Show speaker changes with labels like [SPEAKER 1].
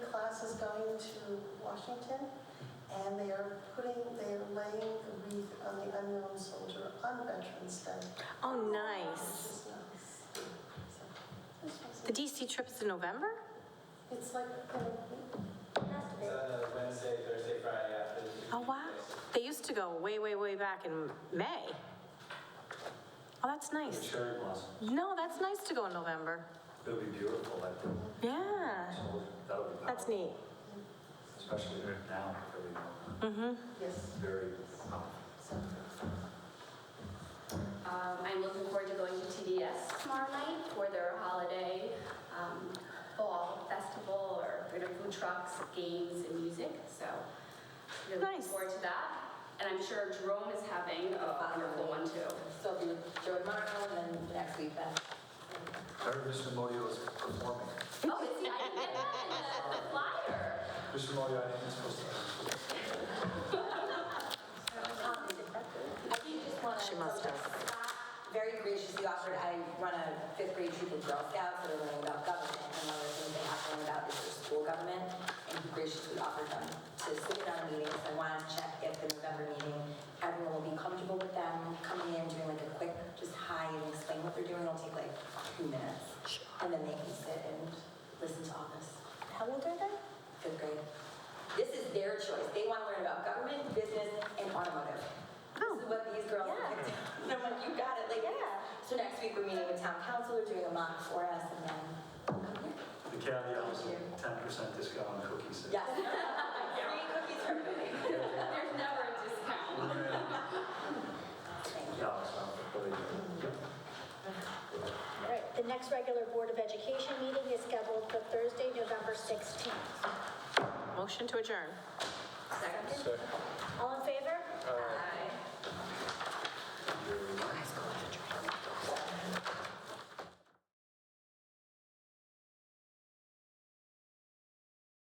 [SPEAKER 1] to Washington, and they are putting, they are laying the wreath on the unknown soldier on Veterans Day.
[SPEAKER 2] Oh,
[SPEAKER 1] Which
[SPEAKER 2] nice.
[SPEAKER 1] is nice. So, this was-
[SPEAKER 2] The DC trip is in November?
[SPEAKER 1] It's like, uh, you know,
[SPEAKER 3] It's on the Wednesday, Thursday, Friday after the.
[SPEAKER 2] Oh, wow. They used to go way, way, way back in May. Oh, that's nice.
[SPEAKER 4] Cherry blossom.
[SPEAKER 2] No, that's nice to go in November.
[SPEAKER 4] It'll be beautiful, like,
[SPEAKER 2] Yeah,
[SPEAKER 4] that'll be.
[SPEAKER 2] that's
[SPEAKER 4] powerful.
[SPEAKER 2] neat.
[SPEAKER 4] Especially now, it'll be
[SPEAKER 2] Mm-hmm.
[SPEAKER 1] yes,
[SPEAKER 4] very powerful.
[SPEAKER 5] Um, I'm looking forward to going to TDS tomorrow night for their holiday um, fall festival or they're gonna food trucks, games, and music. So really looking
[SPEAKER 2] Nice.
[SPEAKER 5] forward to that. And I'm sure Jerome is having a wonderful one too.
[SPEAKER 6] So it'll be Joey Marno and then next week Beth.
[SPEAKER 4] I heard Mr. Moyo is performing.
[SPEAKER 5] Oh, it's, I didn't get that in the- the flyer.
[SPEAKER 4] Mr. Moyo, I think is supposed to.
[SPEAKER 6] Um, I do just want to.
[SPEAKER 2] She must have.
[SPEAKER 6] Very graciously offered, I run a fifth grade troop of Girl Scouts that are learning about government. And one of the things they have to learn about is their school government. And he graciously offered them to sit in on meetings. I want to check if the November meeting, everyone will be comfortable with them coming in, doing like a quick, just hi and explain what they're doing. It'll take like two minutes. And then they can sit and listen to all this.
[SPEAKER 1] how old are they?
[SPEAKER 6] fifth grade. This is their choice. They want to learn about government, business, and automotive.
[SPEAKER 1] Oh.
[SPEAKER 6] This is what these girls
[SPEAKER 2] Yeah.
[SPEAKER 6] picked. And I'm like, you got it, like, yeah. So next week, we're meeting with town council, they're doing a mock for us, and then,
[SPEAKER 4] The caveat was ten percent discount on cookies.
[SPEAKER 6] yes. Free cookies for everybody.
[SPEAKER 5] There's never a discount.
[SPEAKER 6] Thank you.
[SPEAKER 4] Yeah, so, really, yep.
[SPEAKER 7] All right, the next regular Board of Education meeting is scheduled for Thursday, November 16th.
[SPEAKER 2] Motion to adjourn.
[SPEAKER 6] Second?